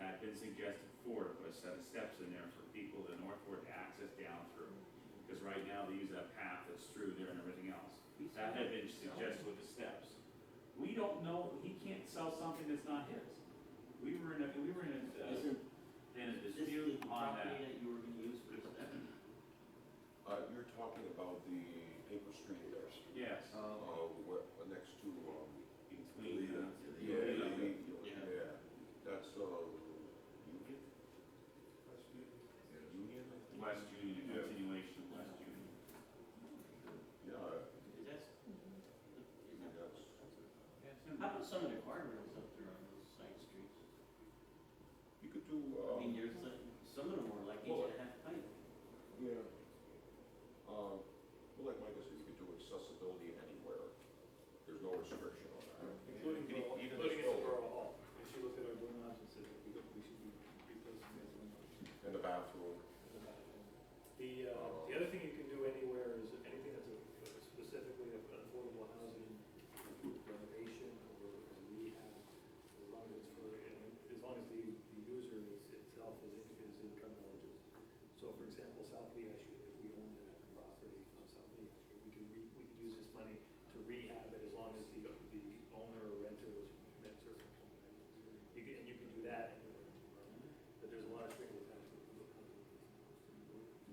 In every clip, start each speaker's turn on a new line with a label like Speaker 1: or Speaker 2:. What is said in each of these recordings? Speaker 1: I've been suggested before to put a set of steps in there for people to northward to access down through. Because right now they use that path that's through there and everything else. That had been suggested with the steps. We don't know, he can't sell something that's not his. We were in a, we were in a, uh,
Speaker 2: Isn't
Speaker 1: in a
Speaker 2: this the
Speaker 1: dispute on that.
Speaker 2: property that you were gonna use for this?
Speaker 3: Uh, you're talking about the paper street there,
Speaker 1: Yes.
Speaker 3: uh, what, next to, um,
Speaker 1: Between, uh,
Speaker 3: yeah,
Speaker 1: Yeah.
Speaker 3: yeah,
Speaker 2: Yeah.
Speaker 3: yeah, that's, uh, Union? Yeah, Union, I think.
Speaker 1: West Union, a
Speaker 3: Yeah.
Speaker 1: continuation of West Union.
Speaker 3: Yeah,
Speaker 2: Is that,
Speaker 3: I
Speaker 2: is
Speaker 3: think
Speaker 2: that,
Speaker 3: that's,
Speaker 2: how about some of the car rentals up there on those side streets?
Speaker 3: you could do,
Speaker 2: I
Speaker 3: um.
Speaker 2: mean, there's, like- some of them were like eight and a half feet.
Speaker 3: Yeah. Um, Well, like Michael said, you could do accessibility anywhere. There's no restriction on
Speaker 4: Including the,
Speaker 3: Even- even
Speaker 4: including
Speaker 3: the
Speaker 4: at the
Speaker 3: store.
Speaker 4: Borough Hall. And she looked at our doorknobs and said, we could- we should be replacing those windows.
Speaker 3: that. And the bathroom.
Speaker 4: The, uh, the other thing you can do anywhere is anything that's a- specifically of affordable housing renovation or rehab, as long as it's for, as long as the, the user is itself is, is income eligible. So for example, South Lee Street, if we owned a property on South Lee Street, we could, re- we could use this money to rehab it as long as the, the owner or renter was met certain. criteria. You can, and you can do that anywhere, but there's a lot of things that have to be.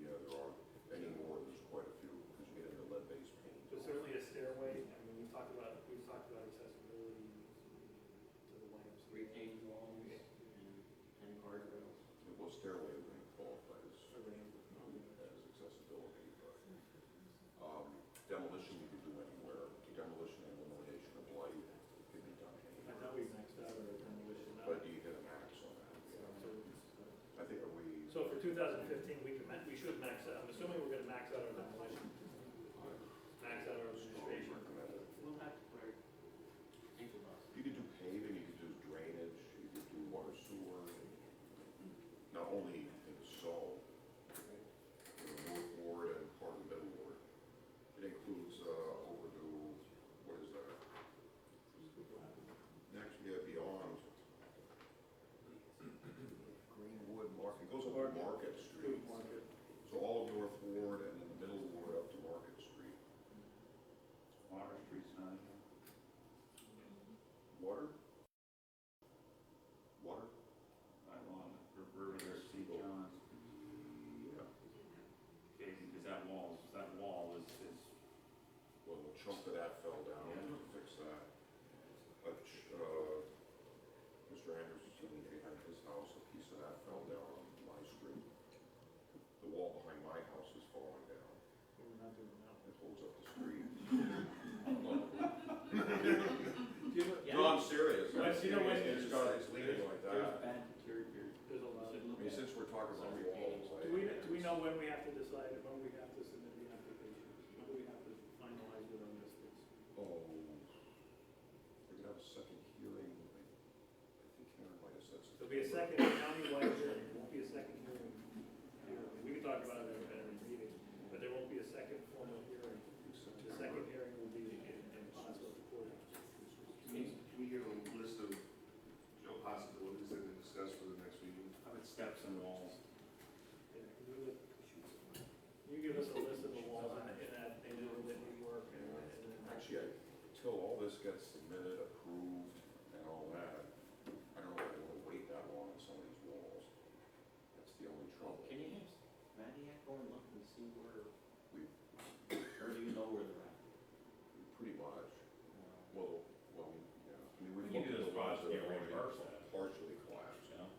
Speaker 3: Yeah, there are anymore, there's quite a few, because you get into lead-based paint.
Speaker 4: But certainly a stairway, I mean, we've talked about, we've talked about accessibility to the YMCA.
Speaker 2: Retained walls and, and car rentals.
Speaker 3: Well, stairway wouldn't qualify as,
Speaker 4: Certainly.
Speaker 3: as accessibility, but um, demolition you could do anywhere. Demolition and elimination of light could be done
Speaker 4: I
Speaker 3: anywhere.
Speaker 4: thought we maxed out our demolition.
Speaker 3: But you hit a max on that.
Speaker 4: So-
Speaker 3: I think, are we,
Speaker 4: So for 2015, we can, ma- we should max out, I'm assuming we're gonna max out our demolition, max out our
Speaker 3: strongly
Speaker 4: administration.
Speaker 3: recommended?
Speaker 2: We'll have to put our, think about
Speaker 3: You could do paving, you could do drainage, you could do water sewer, not only in Seoul, in the North Ward and part of the Middle Ward. It includes uh, overdue, what is that? Next, we have beyond Greenwood Market, it goes up to Market Street. So all of North Ward and then the Middle Ward up to Market Street.
Speaker 1: Water Street's not in here.
Speaker 3: Water? Water?
Speaker 1: By law, the perimeter of St. John's.
Speaker 3: Yeah.
Speaker 1: Okay, because that wall, that wall is, is,
Speaker 3: Well, a chunk of that fell down, we'll fix that. But, uh, Mr. Anderson, behind his house, a piece of that fell down on my street. The wall behind my house is falling down,
Speaker 4: We're not doing that.
Speaker 3: it holds up the street.
Speaker 2: Yeah.
Speaker 3: No, I'm serious.
Speaker 1: Well, you know what?
Speaker 3: It's got, it's leaning like
Speaker 2: There's
Speaker 3: that.
Speaker 2: bad deterioration.
Speaker 4: There's a lot
Speaker 2: Should
Speaker 4: of.
Speaker 3: I mean,
Speaker 2: look at.
Speaker 3: since we're talking about walls, I.
Speaker 4: Do we, do we know when we have to decide, when we have to submit the application? When do we have to finalize with our listings?
Speaker 3: Oh, we're gonna have a second hearing, I I think Karen might have said something.
Speaker 4: There'll be a second countywide hearing, won't be a second hearing. We can talk about it at a meeting, but there won't be a second formal hearing. The second hearing will be in, in possible court.
Speaker 5: Can we get a list of, you know, possibilities that we discuss for the next meeting?
Speaker 1: how about steps and walls?
Speaker 4: You give us a list of the walls in in that neighborhood that we work and, and then
Speaker 3: Actually, I- until all this gets submitted, approved, and all that, I don't know if I want to wait that long on some of these walls. That's the only trouble.
Speaker 2: Can you have Mattiak go and look and see where,
Speaker 3: We, we
Speaker 2: or do you know where they're
Speaker 3: pretty
Speaker 2: at?
Speaker 3: much, well, well, yeah. I mean, we've
Speaker 1: We can do
Speaker 3: looked at
Speaker 1: this project,
Speaker 3: the ones that are
Speaker 1: yeah, reverse
Speaker 3: already
Speaker 1: that.
Speaker 3: partially collapsed.
Speaker 1: You know?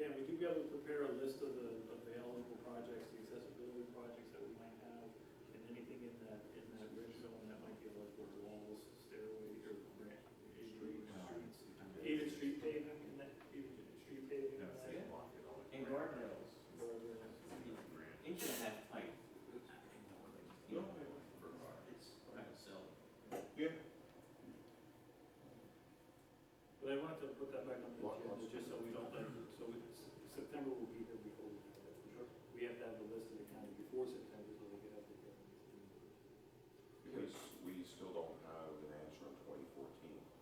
Speaker 4: Dan, would you be able to prepare a list of the available projects, the accessibility projects that we might have, and anything in that, in that red zone that might be eligible, walls, stairways, or grant, streets? Even street paving, and that, even street paving, and that,
Speaker 2: Yeah. And guardrails,
Speaker 4: guardrails.
Speaker 2: inch and a half pipe. You know, it's not sell.
Speaker 3: Yeah.
Speaker 4: But I wanted to put that back on
Speaker 3: What-
Speaker 4: the agenda,
Speaker 3: what's-
Speaker 4: just so we don't, like, so we- S- September will be here before we have that. We have to have the list of the county before September,